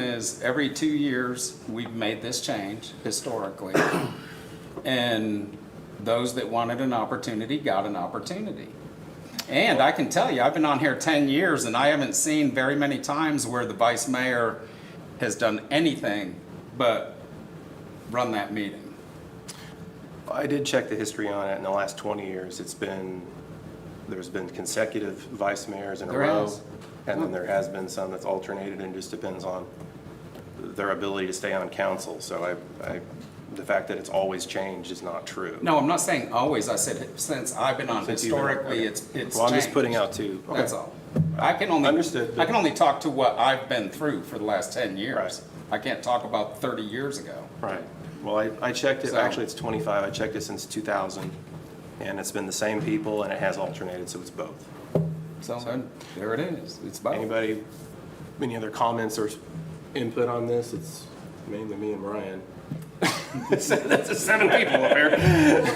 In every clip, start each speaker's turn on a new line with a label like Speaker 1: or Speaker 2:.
Speaker 1: is every two years, we've made this change historically. And those that wanted an opportunity got an opportunity. And I can tell you, I've been on here 10 years and I haven't seen very many times where the vice mayor has done anything but run that meeting.
Speaker 2: I did check the history on it. In the last 20 years, it's been, there's been consecutive vice mayors in a
Speaker 1: There
Speaker 2: row.
Speaker 1: has.
Speaker 2: And then there has been some that's alternated and just depends on their ability to stay on council. So I, I, the fact that it's always changed is not true.
Speaker 1: No, I'm not saying always. I said since I've been on
Speaker 2: Since you've been-
Speaker 1: historically,
Speaker 2: okay.
Speaker 1: it's, it's
Speaker 2: Well, I'm just
Speaker 1: changed.
Speaker 2: putting out two. okay.
Speaker 1: That's all. I can only.
Speaker 2: Understood.
Speaker 1: I can only talk to what I've been through for the last ten years.
Speaker 2: Right.
Speaker 1: I can't talk about thirty years ago.
Speaker 2: Right. Well, I, I checked it,
Speaker 1: So-
Speaker 2: actually, it's 25. I checked it since 2000. And it's been the same people and it has alternated, so it's both.
Speaker 1: So then, there it is. It's about,
Speaker 2: Anybody, any other comments or input on this? It's mainly me and Brian. That's the seven people up here.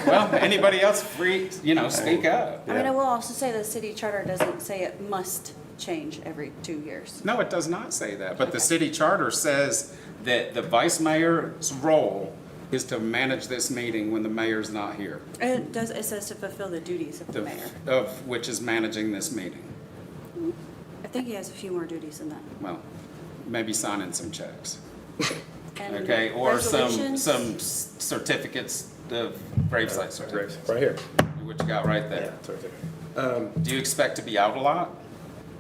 Speaker 1: well, anybody else free, you know, speak up.
Speaker 3: I mean, I will also say the city charter doesn't say it must change every two years.
Speaker 1: No, it does not say that, but the city charter says that the vice mayor's role is to manage this meeting when the mayor's not here.
Speaker 3: And It does, it says to fulfill the duties of the
Speaker 1: the-
Speaker 3: mayor.
Speaker 1: Of which is managing this meeting.
Speaker 3: I think he has a few more duties than that.
Speaker 1: Well, maybe signing some checks.
Speaker 3: And
Speaker 1: Okay, or some,
Speaker 3: resolutions.
Speaker 1: some s- certificates, the
Speaker 2: Uh,
Speaker 1: gravesite certificate,
Speaker 2: Right here.
Speaker 1: what you got right
Speaker 2: Yeah,
Speaker 1: there.
Speaker 2: it's right there.
Speaker 1: Do you expect to be out a lot?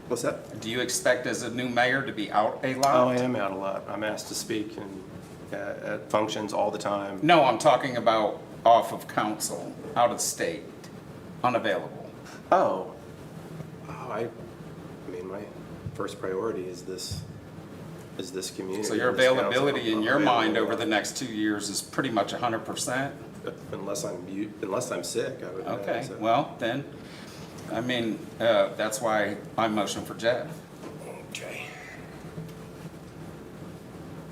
Speaker 2: What's that?
Speaker 1: Do you expect as a new mayor to be out a
Speaker 2: Oh,
Speaker 1: lot?
Speaker 2: I am out a lot. I'm asked to speak and uh, at functions all the time.
Speaker 1: No, I'm talking about off of council, out of state, unavailable.
Speaker 2: Oh. Oh, I, I mean, my first priority is this, is this community.
Speaker 1: So your
Speaker 2: and this council.
Speaker 1: availability in
Speaker 2: I'm
Speaker 1: your mind
Speaker 2: available.
Speaker 1: over the next two years is pretty much hundred percent?
Speaker 2: Unless I'm, mute- unless I'm sick, I would.
Speaker 1: Okay,
Speaker 2: so-
Speaker 1: well, then, I mean, uh, that's why I motion for Jeff.
Speaker 2: Okay.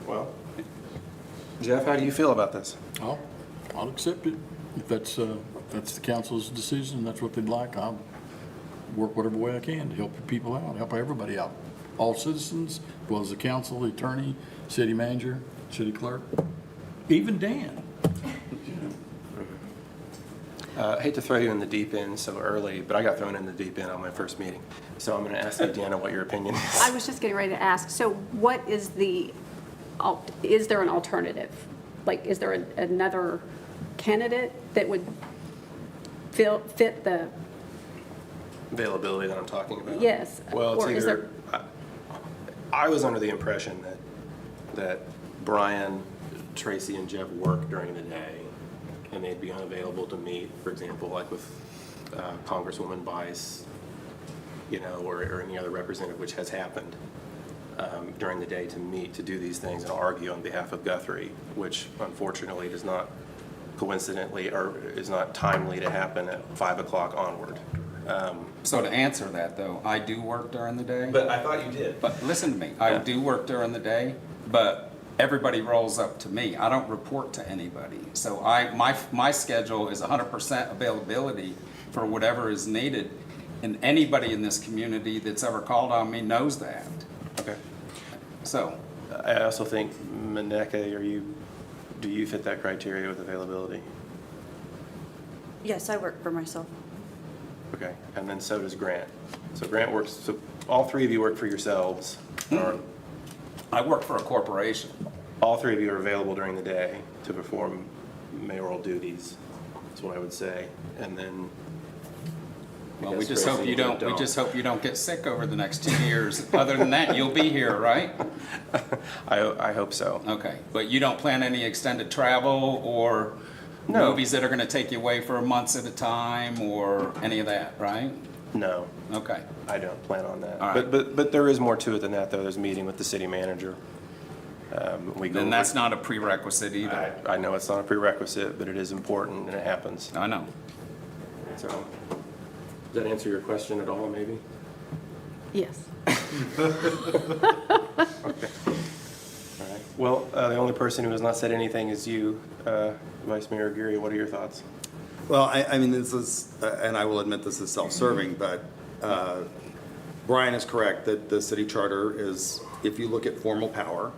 Speaker 2: Well, Jeff, how do you feel about this?
Speaker 4: I'll, I'll accept it. If that's, uh, if that's the council's decision, that's what they'd like, I'll work whatever way I can to help the people out, help everybody out. All citizens, as well as the council, the attorney, city manager, city clerk, even Dan.
Speaker 2: Uh, I hate to throw you in the deep end so early, but I got thrown in the deep end on my first meeting. So I'm going to ask you, Deanna, what your opinion is.
Speaker 5: I was just getting ready to ask, so what is the, al- is there an alternative? Like, is there an- another candidate that would fill, fit the,
Speaker 2: Availability that I'm talking about.
Speaker 5: Yes,
Speaker 2: Well,
Speaker 5: or
Speaker 2: it's
Speaker 5: is
Speaker 2: either, I I was under the impression that, that Brian, Tracy, and Jeff work during the day, and they'd be unavailable to meet, for example, like with uh, Congresswoman Bice, you know, or, or any other representative, which has happened um, during the day to meet, to do these things and argue on behalf of Guthrie, which unfortunately does not coincidentally, or is not timely to happen at 5 o'clock onward.
Speaker 1: So to answer that though, I do work during the day.
Speaker 2: But I thought you did.
Speaker 1: But listen to me, I
Speaker 2: Yeah.
Speaker 1: do work during the day, but everybody rolls up to me. I don't report to anybody. So I, my, my schedule is hundred percent availability for whatever is needed. And anybody in this community that's ever called on me knows that.
Speaker 2: Okay.
Speaker 1: So,
Speaker 2: I also think Maneka, are you, do you fit that criteria with availability?
Speaker 3: Yes, I work for myself.
Speaker 2: Okay, and then so does Grant. So Grant works, so all three of you work for yourselves, or
Speaker 1: I work for a corporation.
Speaker 2: all three of you are available during the day to perform mayoral duties, is what I would say. And then,
Speaker 1: Well, we
Speaker 2: Because
Speaker 1: just hope
Speaker 2: Tracy
Speaker 1: you don't, we
Speaker 2: don't.
Speaker 1: just hope you don't get sick over the next two years. Other than that, you'll be here, right?
Speaker 2: I, I hope so.
Speaker 1: Okay, but you don't plan any extended travel or
Speaker 2: No.
Speaker 1: movies that are gonna take you away for months at a time or any of that, right?
Speaker 2: No,
Speaker 1: Okay,
Speaker 2: I don't plan on that.
Speaker 1: All right.
Speaker 2: But, but, but there is more to it than that, though. There's a meeting with the city manager. Um, We go.
Speaker 1: then
Speaker 2: over-
Speaker 1: that's not a prerequisite either.
Speaker 2: I I know it's not a prerequisite, but it is important and it happens.
Speaker 1: I know.
Speaker 2: So, does that answer your question at all, maybe?
Speaker 5: yes?
Speaker 2: All right. Well, uh, the only person who has not said anything is you, uh, Vice Mayor Geary. What are your thoughts?
Speaker 6: Well, I, I mean, this is, uh, and I will admit this is self-serving, but uh, Brian is correct that the city charter is, if you look at formal power,